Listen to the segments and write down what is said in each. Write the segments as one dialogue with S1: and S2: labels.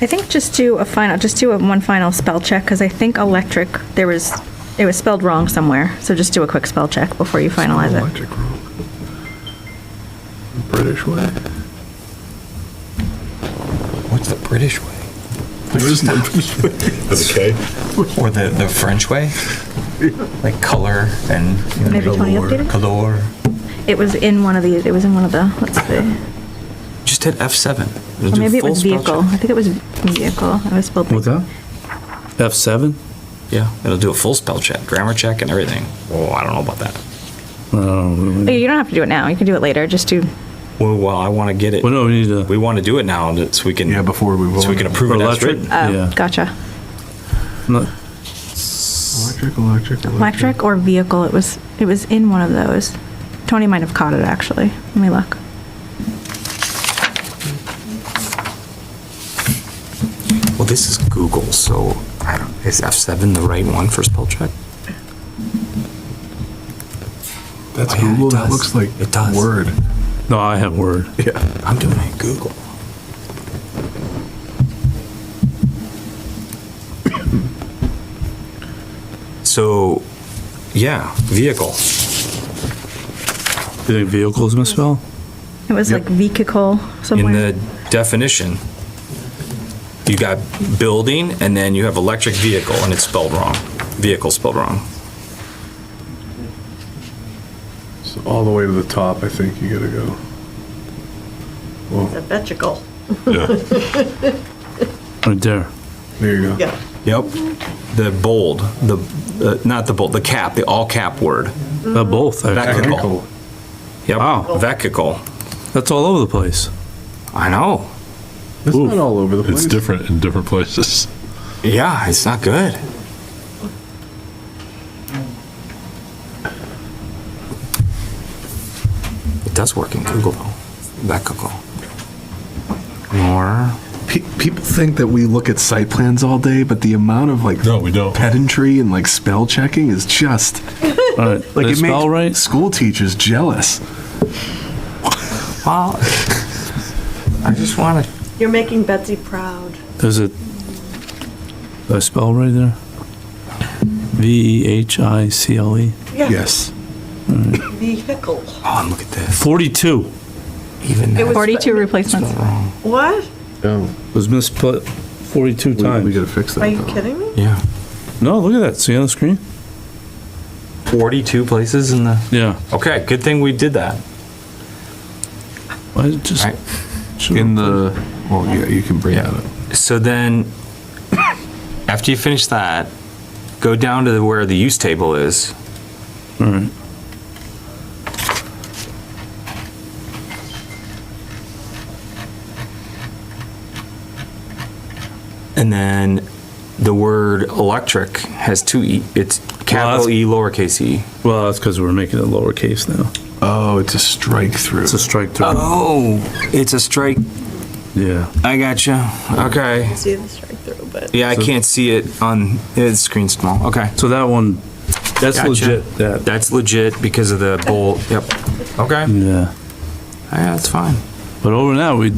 S1: I think just do a final, just do a one final spell check, because I think electric, there was, it was spelled wrong somewhere, so just do a quick spell check before you finalize it.
S2: Electric room. British way?
S3: What's the British way?
S2: There is no British way.
S4: With a K?
S3: Or the, the French way? Like color and you know,
S1: Maybe Tony
S2: Galore.
S1: updated? it?
S3: color.
S1: It was in one of the, it was in one of the, let's see,
S3: Just hit F7. It'll
S1: or
S3: do
S1: maybe it
S3: full
S1: was
S3: spell
S1: vehicle,
S3: check.
S1: I think it was vehicle, it was spelled.
S5: What's that? F7?
S3: Yeah, it'll do a full spell check, grammar check, and everything. Oh, I don't know about that.
S5: Oh,
S1: Oh, You don't have to do it now, you can do it later, just do, uh,
S3: Well, well I want to get it.
S5: well, no, we need to.
S3: We want to do it now that- so we can.
S2: Yeah, before we
S3: So we
S2: vote.
S3: can approve
S5: For
S3: it as
S5: electric?
S3: written.
S1: oh,
S5: Yeah.
S1: gotcha.
S5: not-
S2: Electric, electric, electric.
S1: Electric or vehicle, it was, it was in one of those. Tony might have caught it, actually, let me look.
S3: Well, this is Google, so I don't, is F7 the right one for spell check?
S2: That's
S3: Oh, yeah, it
S2: Google, that
S3: does.
S2: looks like
S3: It does.
S2: Word.
S5: No, I have Word.
S2: Yeah.
S3: I'm doing it in Google. So, yeah, vehicle.
S5: You think vehicles misspell?
S1: It was like vehicle
S3: In
S1: somewhere.
S3: the definition, you got building and then you have electric vehicle and it's spelled wrong. Vehicle spelled wrong.
S2: So all the way to the top, I think you gotta go. Well,
S6: Vehicle.
S5: Right there.
S2: there you go.
S6: Yeah.
S3: Yep. The bold, the, uh, not the bold, the cap, the all cap word.
S5: Uh, both, actually.
S3: Vehicle. Yep.
S5: Wow.
S3: Vehicle.
S5: That's all over the place.
S3: I know.
S2: It's
S5: Oof.
S2: not all over the place.
S7: It's different in different places.
S3: Yeah, it's not good. It does work in Google though. Vehicle. More.
S2: Pe- People think that we look at site plans all day, but the amount of like
S7: No, we don't.
S2: pedantry and like spell checking is just
S5: All right. Did
S2: like
S5: I
S2: it
S5: spell
S2: makes
S5: right?
S2: school teachers jealous.
S3: Well, I just want to.
S6: You're making Betsy proud.
S5: Is it, did I spell right there? E V-E-H-I-C-L-E.
S6: Yeah,
S2: Yes.
S6: vehicle.
S3: Oh, and look at this.
S5: 42
S3: Even
S6: It was-
S3: that.
S1: 42 replacements.
S6: What?
S2: Oh,
S5: was misspelled 42
S2: we, we
S5: times.
S2: gotta fix
S6: Are
S2: that.
S6: you
S2: though.
S6: kidding me?
S3: Yeah.
S5: No, look at that. See on the screen?
S3: Forty-two places in the.
S5: Yeah.
S3: Okay, good thing we did that.
S5: I just.
S3: Right.
S5: should've-
S2: In the well, yeah, you can bring that up.
S3: So then, after you finish that, go down to where the use table is.
S5: All right.
S3: Mm-hmm. And then the word electric has two E, it's capital E lowercase e.
S5: Well, that's because we're making it lowercase now.
S2: Oh, it's a strike through.
S5: It's a strike through.
S2: Uh-huh.
S3: Oh, it's a strike,
S5: Yeah.
S3: I gotcha, okay.
S6: See this right through, but
S3: Yeah, I can't see it on, it's screen small, okay.
S5: So that one, that's
S3: Gotcha.
S5: legit. That.
S3: That's legit because of the bold, yep, okay,
S5: Yeah.
S3: yeah, that's fine.
S5: But over now, we,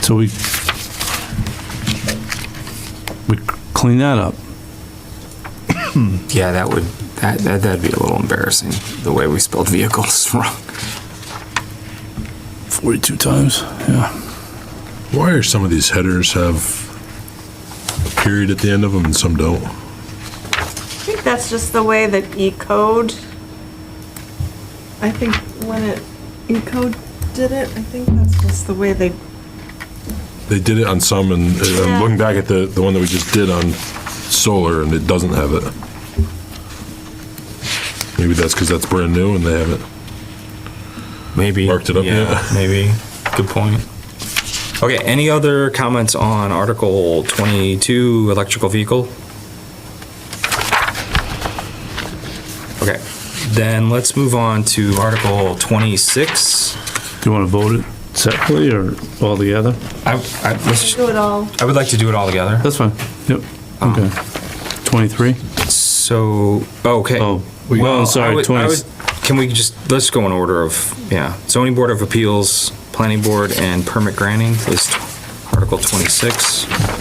S5: so we, we clean that up.
S3: Yeah, that would, that, that- that'd be a little embarrassing, the way we spelled vehicles wrong.
S5: 42 times. Yeah.
S7: Why are some of these headers have a period at the end of them and some don't?
S6: I think that's just the way that E-code, I think when it, E-code did it, I think that's just the way they,
S7: They did it on some, and and
S6: Yeah.
S7: I'm looking back at the, the one that we just did on solar, and it doesn't have it. Maybe that's because that's brand new and they haven't.
S3: Maybe.
S7: Marked it up yet?
S3: Maybe. Good point. Okay, any other comments on Article 22, electrical vehicle? Okay, then let's move on to Article 26.
S5: Do you want to vote it separately or all together?
S3: I, I, let's-
S6: do it all.
S3: I would like to do it all together.
S5: That's fine. Yep.
S3: Uh-huh.
S5: Okay. 23?
S3: So, okay.
S5: Oh, well,
S3: I
S5: sorry,
S3: would- I
S5: 20.
S3: would- Can we just, let's go in order of, yeah, zoning board of appeals, planning board, and permit granting is Article 26.